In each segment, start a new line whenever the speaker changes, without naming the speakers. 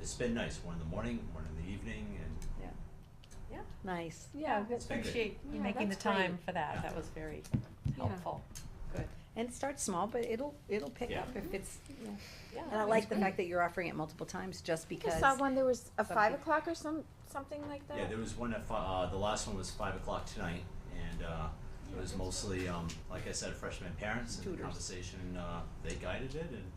it's been nice, one in the morning, one in the evening, and
Yeah, yeah,
Nice.
yeah,
It's been good.
appreciate you
Yeah,
making the
that's
time
great.
for that,
Yeah.
that was very
Yeah.
helpful, good,
And start small, but it'll, it'll pick
Yeah.
up if it's, yeah.
yeah.
And I
that's
like the
great.
fact that you're offering it multiple times just
I
because.
just saw one, there was a
some
five
people-
o'clock or some, something like that.
Yeah, there was one at fi- uh, the last one was five o'clock tonight, and, uh, it was mostly, um, like I said, freshman parents and the
Tutors.
conversation, uh, they guided it and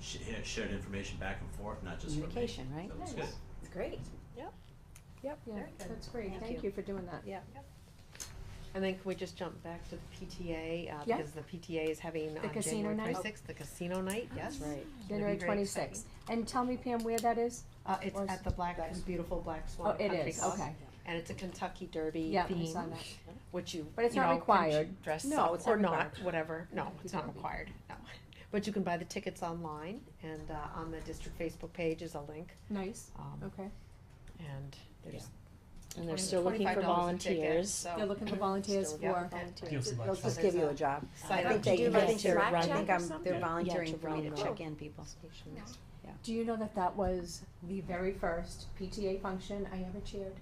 sh- yeah, shared information back and forth, not just from me.
Communication, right?
So it was
Nice.
good.
It's great.
Yep, yeah,
Very good.
that's great,
Thank
thank
you.
you for doing that.
Yeah.
And then can we just jump back to the PTA, uh,
Yeah.
because the PTA is having
The
on
casino
January
night.
twenty-sixth, the casino night, yes? It's gonna
January
be very
twenty-sixth, and tell me Pam where that is?
exciting. Uh,
Or
it's
s-
at the Black, this beautiful Black
Oh,
Swan
it
Country
is,
Club,
okay,
and it's a Kentucky Derby
yeah, I
theme,
saw that.
which you,
But it's
you
not
know, can
required.
ch- dress
No,
up
it's not
or not,
required.
whatever, no,
Kentucky
it's not
Derby.
required, no. But you can buy the tickets online, and, uh, on the district Facebook page is a link,
Nice,
um,
okay.
and there's.
And they're still looking for
$25 a ticket,
volunteers.
so-
They're looking for volunteers
Yeah,
for,
volunteers.
Give some
They'll
bucks.
just give you a job. I
Sign
think
up.
they,
Do you
yes,
like
they're,
track
I
check
think
or
I'm, they're
something?
volunteering
Yeah,
for me to
Jerome
check
Road.
in people.
Stations.
do you know that that was the very first PTA function I ever chaired?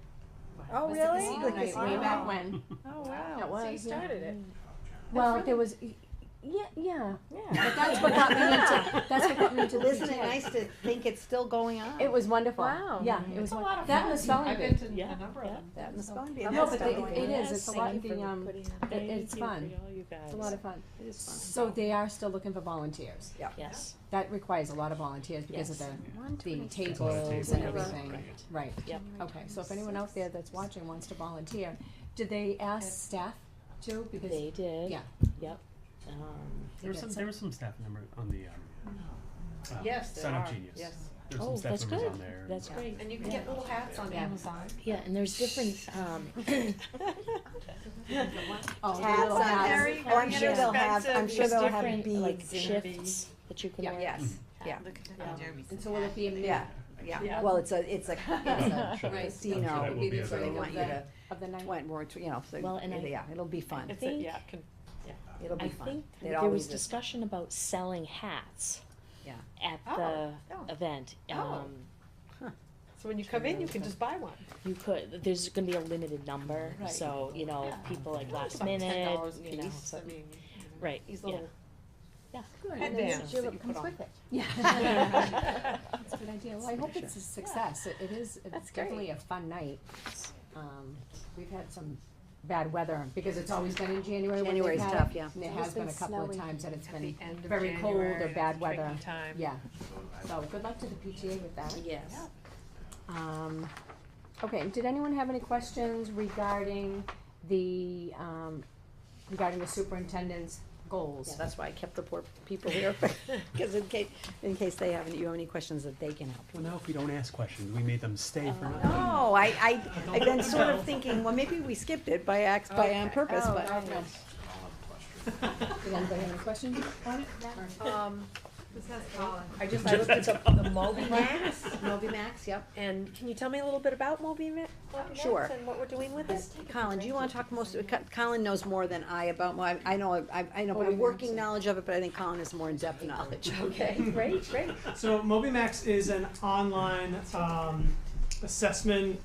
Oh,
Was the
really?
casino
Like
night
a
Way
small-
back when,
Oh,
that was, yeah.
it.
Well, there was, yeah, yeah,
Yeah.
but that's what got me into, that's what got me into the
Isn't it
PTA.
nice to think it's still going on?
It was wonderful.
Oh,
Wow.
Yeah, it was.
It's a
won-
lot of
That
fun.
and the spelling
I've
bee.
been to a number of them.
That and the spelling bee.
No,
and that's
but
still
they- it-
going
it
on.
is, it's a lot, the, um, it- it's fun. It's a lot of fun.
It is fun.
So they are still looking for volunteers.
Yes.
That requires a lot of volunteers because of
Yes.
the,
One, two,
the
three.
tables and
Yeah.
everything. Right.
Yep.
Okay, so if anyone out there that's watching wants to volunteer, did they ask staff too? Because,
They did.
yeah.
Yep. Um,
There was some, there was some staff member on the, um, uh,
Yes, there
Sign Up
are.
Genius.
Yes.
There were
Oh,
some
that's
staff members on
good.
there. Mm.
that's great.
And you can get little hats on Amazon.
Yeah, and there's different. Um,
Oh,
Hats
little
on
hats.
there.
Very,
Oh, I'm
very
sure they'll have, I'm
inexpensive.
sure
there's
they'll have
different, like
beads. Um,
shifts that you can
Yeah.
wear. Um,
Yes, yeah,
And so will it be a mix
yeah, yeah.
Yeah.
Well, it's a, it's a, it's a
Sure.
Right.
casino.
I'm sure that will be
So they
available.
want you to,
of the night?
want more, to- you know, so,
Well, and I-
yeah, it'll be fun.
I think-
yeah, can-
It'll be
I
fun.
think
It
there
always
was
is.
discussion about selling hats.
Yeah.
At
Oh,
the
oh.
event,
Oh.
um,
so when you come in, you can just buy one.
you could. There's going to be a limited number,
Right.
so you know, if people like
Well, it's
last
about
minute,
$10 a
you know,
piece,
so-
I mean,
right?
these
yeah.
little
And
headbands
then
that you
Julep
put
comes
on.
with it. Yeah. That's a good idea. Well, I hope it's a success. It it is, it's definitely a fun night. Um, we've had some bad weather because it's always been in January when they've
January's
had it,
tough, yeah.
And it It's has been been a couple of snowy. times that it's
At
been,
the end of
very cold or
January, it's
bad
a
weather.
tricky time.
yeah. So good luck to the PTA with that.
Yes.
Um, okay, did anyone have any questions regarding the, um, regarding the superintendent's
Yeah,
goals?
that's why I kept the poor people here, because in case, in case they have, any- you have any questions that they can help.
Well, now if we don't ask questions, we made them stay
Oh,
for nothing.
No, Oh, I, I, I've been sort of thinking, well, maybe we skipped it by ax, by on purpose,
Oh,
but.
okay.
I'll have a question.
Did anybody have any questions on it? Or-
Um,
I just, I looked at the, the Moby Max. Moby Max, yep.
and can you tell me a little bit about Moby Ma- Moby
Sure.
Max and what we're doing with it?
Colin, do you wanna talk most, Co- Colin knows more than I about, well, I, I know, I, I know, a working knowledge of it, but I think Colin has more in-depth knowledge.
Okay, great, great.
So MobiMax is an online um, assessment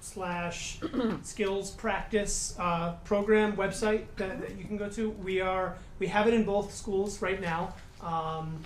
slash skills practice uh, program website that, that you can go to. We are we have it in both schools right now. Um,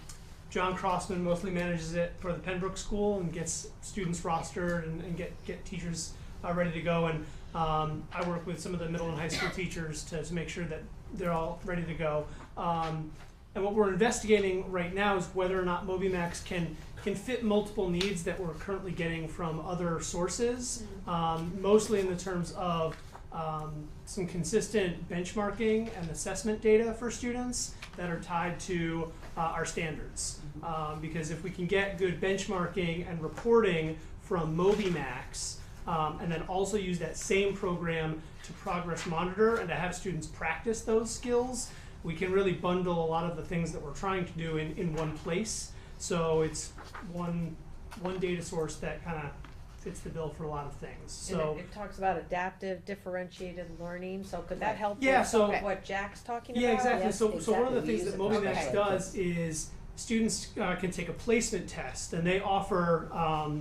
John Crossman mostly manages it for the Pembroke School and gets students rostered and, and get get teachers uh, ready to go. And um, I work with some of the middle and high school teachers to, to make sure that they're all ready to go. Um, and what we're investigating right now is whether or not MobiMax can can fit multiple needs that we're currently getting from other sources, um, mostly in the terms of um, some consistent benchmarking and assessment data for students that are tied to uh, our standards. Um, because if we can get good benchmarking and reporting from MobiMax, um, and then also use that same program to progress monitor and to have students practice those skills, we can really bundle a lot of the things that we're trying to do in, in one place. So it's one one data source that kind of fits the bill for a lot of things.
And
So
it, it talks about adaptive, differentiated learning, so could that help
Yeah,
with
so-
what Jack's talking about?
yeah, exactly. So so one of the
exactly. We use
things that
it for
MobiMax
that.
does is students uh, can take a placement test, and they offer um,